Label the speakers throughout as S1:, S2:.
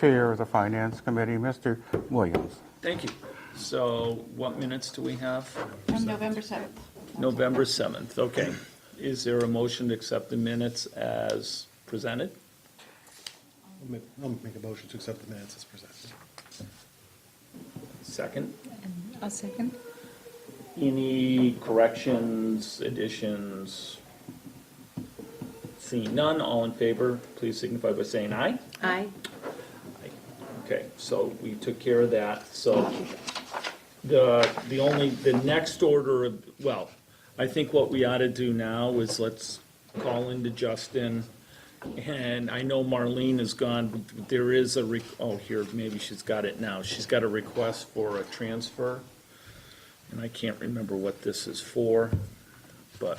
S1: Chair of the Finance Committee, Mr. Williams.
S2: Thank you. So what minutes do we have?
S3: From November 7th.
S2: November 7th, okay. Is there a motion to accept the minutes as presented?
S4: I'll make- I'll make a motion to accept the minutes as presented.
S2: Second?
S5: A second.
S2: Any corrections, additions? Seeing none, all in favor, please signify by saying aye.
S5: Aye.
S2: Okay, so we took care of that, so the, the only, the next order of, well, I think what we ought to do now is let's call into Justin. And I know Marlene is gone, but there is a, re- oh, here, maybe she's got it now. She's got a request for a transfer. And I can't remember what this is for, but,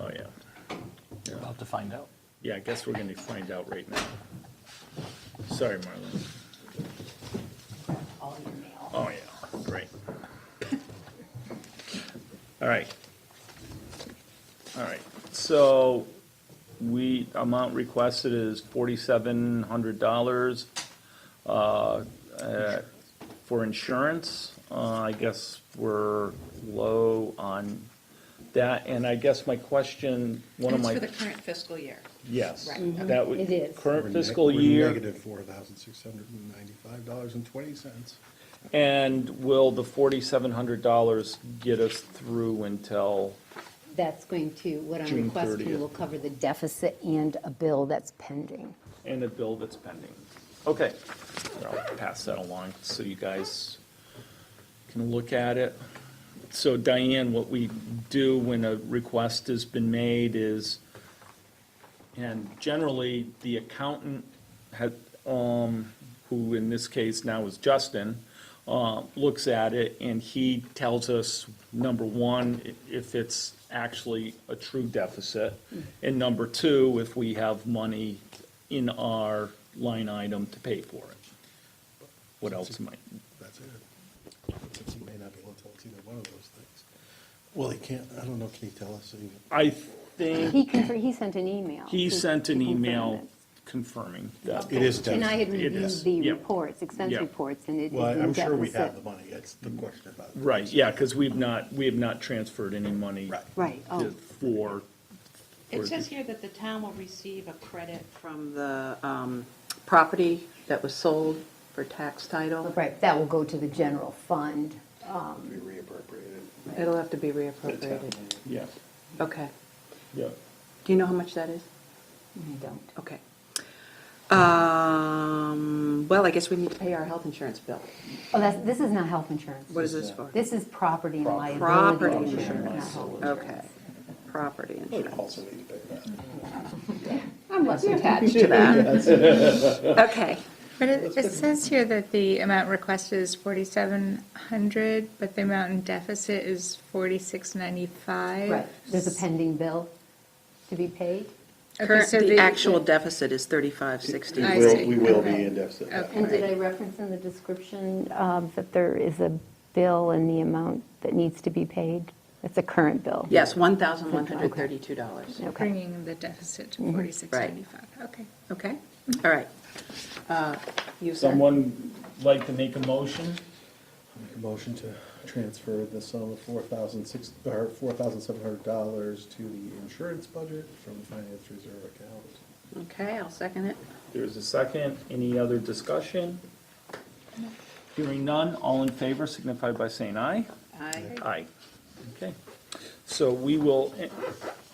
S2: oh, yeah.
S6: About to find out.
S2: Yeah, I guess we're gonna find out right now. Sorry, Marlene. Oh, yeah, great. All right. All right, so we, amount requested is forty-seven hundred dollars uh, for insurance. Uh, I guess we're low on that, and I guess my question, one of
S3: It's
S2: my.
S3: for the current fiscal year.
S2: Yes.
S3: Right,
S2: That would,
S5: It is.
S4: We're
S2: current
S4: neg-
S2: fiscal
S4: we're
S2: year,
S4: Negative four thousand six hundred and ninety-five dollars and twenty cents.
S2: and will the forty-seven hundred dollars get us through until,
S7: That's going to, what
S2: June
S7: I'm requesting
S2: 30th.
S7: will cover the deficit and a bill that's pending.
S2: and a bill that's pending? Okay, I'll pass that along so you guys can look at it. So Diane, what we do when a request has been made is, and generally, the accountant had, um, who in this case now is Justin, uh, looks at it and he tells us, number one, i- if it's actually a true deficit, and number two, if we have money in our line item to pay for it. What else might,
S4: That's it. Since he may not be able to tell us either one of those things. Well, he can't, I don't know, can he tell us even?
S2: I think
S7: He confirmed, he sent an email.
S2: he sent an
S7: to confirm
S2: email
S7: it.
S2: confirming that.
S4: It is
S7: And
S4: deficit.
S7: I had
S2: It
S7: reviewed
S2: is,
S7: the
S2: yeah.
S7: reports, expense
S2: Yeah.
S7: reports, and it is
S4: Well, I-
S7: in
S4: I'm sure we have the
S7: deficit.
S4: money, that's the question about it.
S2: Right, yeah, because we've not, we have not transferred any money.
S4: Right.
S7: Right,
S2: to-
S7: oh,
S2: For,
S3: It
S2: Or-
S3: says here that the town will receive a credit
S8: from the um, property that was sold for tax title.
S7: right, that will go to the general fund.
S4: To be reappropriated.
S8: It'll have to be reappropriated.
S2: yeah,
S8: Okay.
S2: yeah.
S8: Do you know how much that is?
S7: I don't.
S8: Okay. Um, Well, I guess we need to pay our health insurance bill.
S7: Oh, that's, this is not health insurance.
S8: What is this for?
S7: This is property and
S8: Property
S7: liability insurance, not
S8: insurance.
S7: health insurance.
S8: Okay. Property
S2: Oh,
S4: We
S8: insurance.
S4: also need to pay that.
S7: I'm less attached.
S8: To that. Okay.
S5: But it, it says here that the amount requested is forty-seven hundred, but the amount in deficit is forty-six ninety-five.
S7: Right, there's a pending bill to be paid.
S5: Okay,
S8: Current,
S5: so
S8: the actual deficit is 3560.
S5: I
S4: We will-
S5: see.
S4: We will be
S5: Okay.
S4: in deficit.
S5: Okay.
S7: And did I reference in the description um, that there is a bill and the amount that needs to be paid? It's a current bill?
S8: Yes, $1,132.
S7: Okay. Mm-hmm.
S5: Bringing the deficit to forty-six ninety-five, okay.
S8: Okay? All right. Uh, You, sir?
S2: Someone like to make a motion?
S4: Make a motion to transfer the sum of four thousand six, or four thousand seven hundred dollars to the insurance budget from the finance reserve account.
S8: Okay, I'll second it.
S2: There's a second, any other discussion? Hearing none, all in favor signify by saying aye.
S3: I
S2: Aye. Okay. So we will,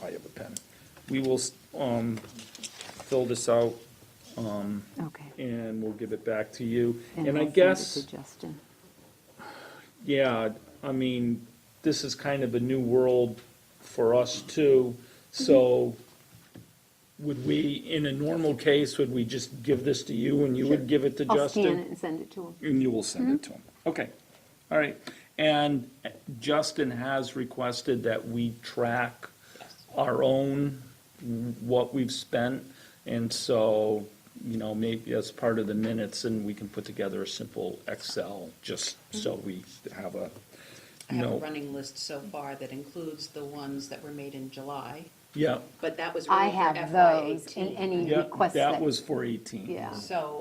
S2: I have a pen. We will um, fill this out
S7: Okay.
S2: and we'll give it back to you. And I
S7: I'll send it
S2: guess.
S7: to Justin.
S2: Yeah, I mean, this is kind of a new world for us too, so would we, in a normal case, would we just give this to you and you would give it to
S7: I'll scan
S2: Justin?
S7: it Mm-hmm. and send it to him.
S2: And you will send it to him. Okay, all right. And Justin has requested that we track our own, what we've spent. And so, you know, maybe as part of the minutes, and we can put together a simple Excel, just
S7: Mm-hmm.
S2: so we have a,
S3: have a
S2: no.
S3: running list so far that includes the ones that were made in July
S2: Yeah,
S3: but that was
S7: I
S3: really for
S7: have
S3: FY
S7: those in
S3: eighteen.
S7: any
S2: yeah,
S7: request that.
S2: that was for 18.
S7: Yeah.
S3: So